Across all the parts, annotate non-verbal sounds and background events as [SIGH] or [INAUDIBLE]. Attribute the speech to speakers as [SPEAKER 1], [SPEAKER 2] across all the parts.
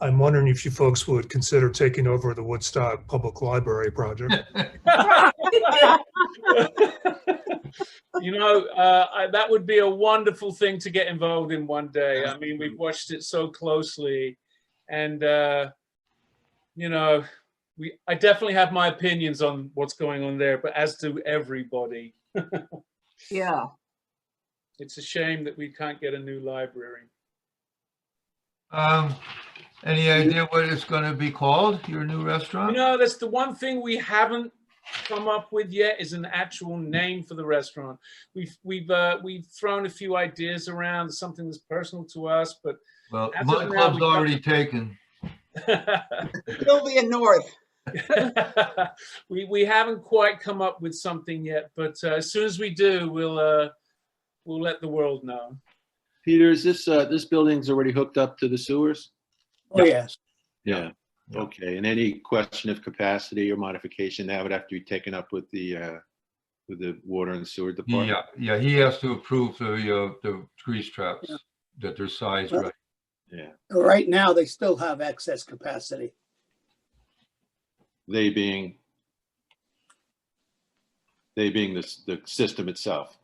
[SPEAKER 1] I'm wondering if you folks would consider taking over the Woodstock Public Library project.
[SPEAKER 2] you know, uh, I, that would be a wonderful thing to get involved in one day. I mean, we've watched it so closely, and uh, you know, we I definitely have my opinions on what's going on there, but as do everybody.
[SPEAKER 3] Yeah,
[SPEAKER 2] It's a shame that we can't get a new library.
[SPEAKER 4] Um, any idea what it's gonna be called, your new
[SPEAKER 2] You
[SPEAKER 4] restaurant?
[SPEAKER 2] know, that's the one thing we haven't come up with yet is an actual name for the restaurant. We've we've uh, we've thrown a few ideas around, something that's personal to us, but
[SPEAKER 4] Well,
[SPEAKER 2] As
[SPEAKER 4] my
[SPEAKER 2] of now,
[SPEAKER 4] club's
[SPEAKER 2] we don't-
[SPEAKER 4] already taken.
[SPEAKER 3] Sylvia North.
[SPEAKER 2] [LAUGHS] we we haven't quite come up with something yet, but uh, as soon as we do, we'll uh, we'll let the world know.
[SPEAKER 5] Peter, is this, uh, this building's already hooked up to the sewers?
[SPEAKER 6] Oh, yes.
[SPEAKER 5] Yeah,
[SPEAKER 4] Yeah.
[SPEAKER 5] okay. And any question of capacity or modification, that would have to be taken up with the, uh, with the water and sewer department?
[SPEAKER 4] Yeah, yeah, he has to approve the, uh, the grease traps, that they're sized right.
[SPEAKER 5] Yeah,
[SPEAKER 6] Right now, they still have excess capacity.
[SPEAKER 5] they being, they being the, s- the system itself,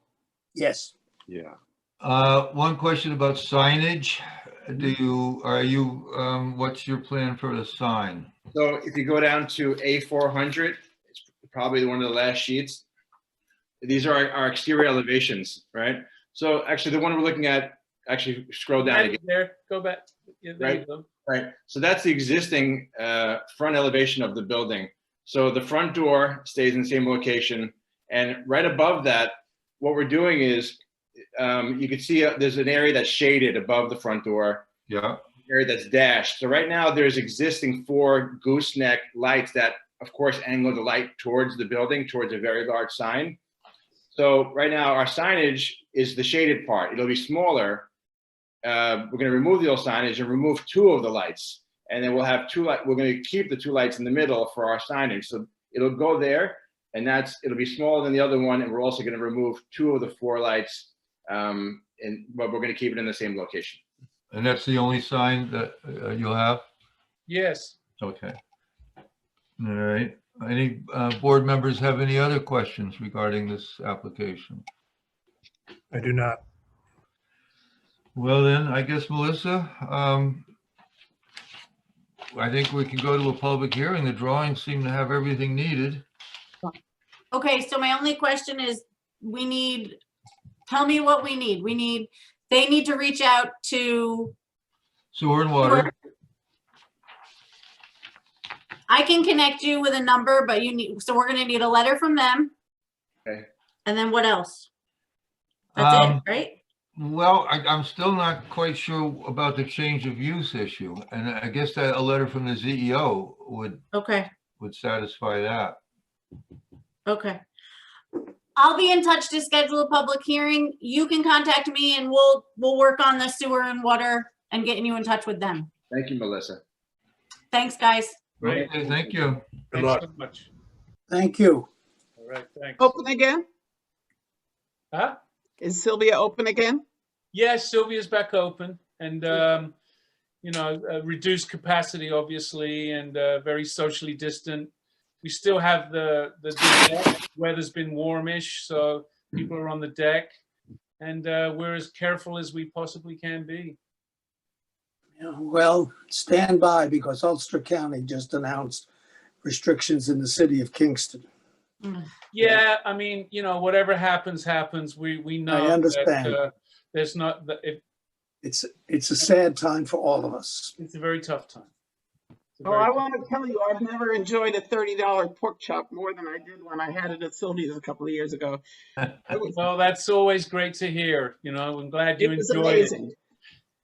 [SPEAKER 6] Yes.
[SPEAKER 5] yeah.
[SPEAKER 4] Uh, one question about signage. Do you, are you, um, what's your plan for the sign?
[SPEAKER 7] So if you go down to A400, it's probably one of the last sheets. These are our- our exterior elevations, right? So actually, the one we're looking at, actually scroll down
[SPEAKER 2] Right
[SPEAKER 7] again,
[SPEAKER 2] there, go back. Yeah, there you
[SPEAKER 7] Right.
[SPEAKER 2] go.
[SPEAKER 7] right? So that's the existing uh, front elevation of the building. So the front door stays in the same location. And right above that, what we're doing is, um, you can see uh, there's an area that's shaded above the front door.
[SPEAKER 4] Yeah,
[SPEAKER 7] area that's dashed. So right now, there's existing four gooseneck lights that, of course, angle the light towards the building, towards a very large sign. So right now, our signage is the shaded part. It'll be smaller. Uh, We're going to remove the old signage and remove two of the lights. And then we'll have two, light. we're going to keep the two lights in the middle for our signage. So it'll go there, and that's, it'll be smaller than the other one, and we're also going to remove two of the four lights. um, And, but we're going to keep it in the same location.
[SPEAKER 4] and that's the only sign that uh, you'll have?
[SPEAKER 2] Yes.
[SPEAKER 4] Okay. All right. Any uh, board members have any other questions regarding this application?
[SPEAKER 1] I do not.
[SPEAKER 4] Well then, I guess Melissa, um, I think we can go to a public hearing. The drawings seem to have everything needed.
[SPEAKER 8] Okay, so my only question is, we need, tell me what we need. We need, they need to reach out to,
[SPEAKER 4] Sewer and water.
[SPEAKER 8] I can connect you with a number, but you need, so we're gonna need a letter from them.
[SPEAKER 7] Okay.
[SPEAKER 8] And then what else? That's
[SPEAKER 4] Um,
[SPEAKER 8] it, right?
[SPEAKER 4] Well, I, I'm still not quite sure about the change of use issue. And I guess that a letter from the CEO would,
[SPEAKER 8] Okay,
[SPEAKER 4] would satisfy that.
[SPEAKER 8] okay. I'll be in touch to schedule a public hearing. You can contact me and we'll, we'll work on the sewer and water and getting you in touch with them.
[SPEAKER 7] Thank you, Melissa.
[SPEAKER 8] Thanks, guys.
[SPEAKER 2] Right.
[SPEAKER 4] Okay, thank you. [LAUGHS]
[SPEAKER 1] Good
[SPEAKER 2] Thanks
[SPEAKER 1] luck.
[SPEAKER 2] so much.
[SPEAKER 6] Thank you.
[SPEAKER 2] All right. Thanks.
[SPEAKER 3] Open again?
[SPEAKER 2] Huh?
[SPEAKER 3] Is Sylvia open again?
[SPEAKER 2] Yes, Sylvia's back open and, um, you know, uh, reduced capacity, obviously, and uh, very socially distant. We still have the, the deck. weather's been warmish, so people are on the deck. And uh, we're as careful as we possibly can be.
[SPEAKER 6] Yeah, Well, stand by because Ulster County just announced restrictions in the city of Kingston.
[SPEAKER 2] Yeah, I mean, you know, whatever happens, happens. We, we know that,
[SPEAKER 6] understand.
[SPEAKER 2] uh, There's not, that it-
[SPEAKER 6] It's, it's a sad time for all of us.
[SPEAKER 2] it's a very tough time. It's a
[SPEAKER 3] Oh,
[SPEAKER 2] very
[SPEAKER 3] I
[SPEAKER 2] tough-
[SPEAKER 3] want to tell you, I've never enjoyed a $30 pork chop more than I did when I had it at Sylvia's a couple of years ago. It was-
[SPEAKER 2] Well, that's always great to hear, you know, I'm glad you
[SPEAKER 3] It was
[SPEAKER 2] enjoyed it.
[SPEAKER 3] amazing.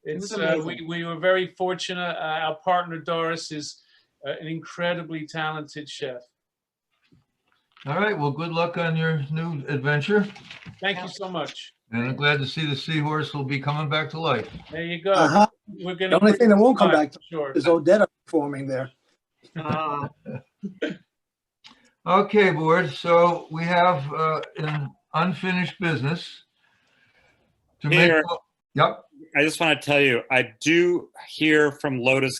[SPEAKER 2] It's,
[SPEAKER 3] was
[SPEAKER 2] uh, we,
[SPEAKER 3] amazing.
[SPEAKER 2] we were very fortunate. Uh, our partner Doris is uh, an incredibly talented chef.
[SPEAKER 4] All right, well, good luck on your new adventure.
[SPEAKER 2] Thank you so much.
[SPEAKER 4] And I'm glad to see the seahorse will be coming back to life.
[SPEAKER 2] There you go.
[SPEAKER 6] Uh-huh.
[SPEAKER 2] We're gonna.
[SPEAKER 6] The only thing that won't come
[SPEAKER 2] Bye,
[SPEAKER 6] back
[SPEAKER 2] Sure.
[SPEAKER 6] is Odetta performing there.
[SPEAKER 3] Ah,
[SPEAKER 4] Okay, board, so we have uh, an unfinished business. to make.
[SPEAKER 9] Peter.
[SPEAKER 4] Yep.
[SPEAKER 9] I just want to tell you, I do hear from Lotus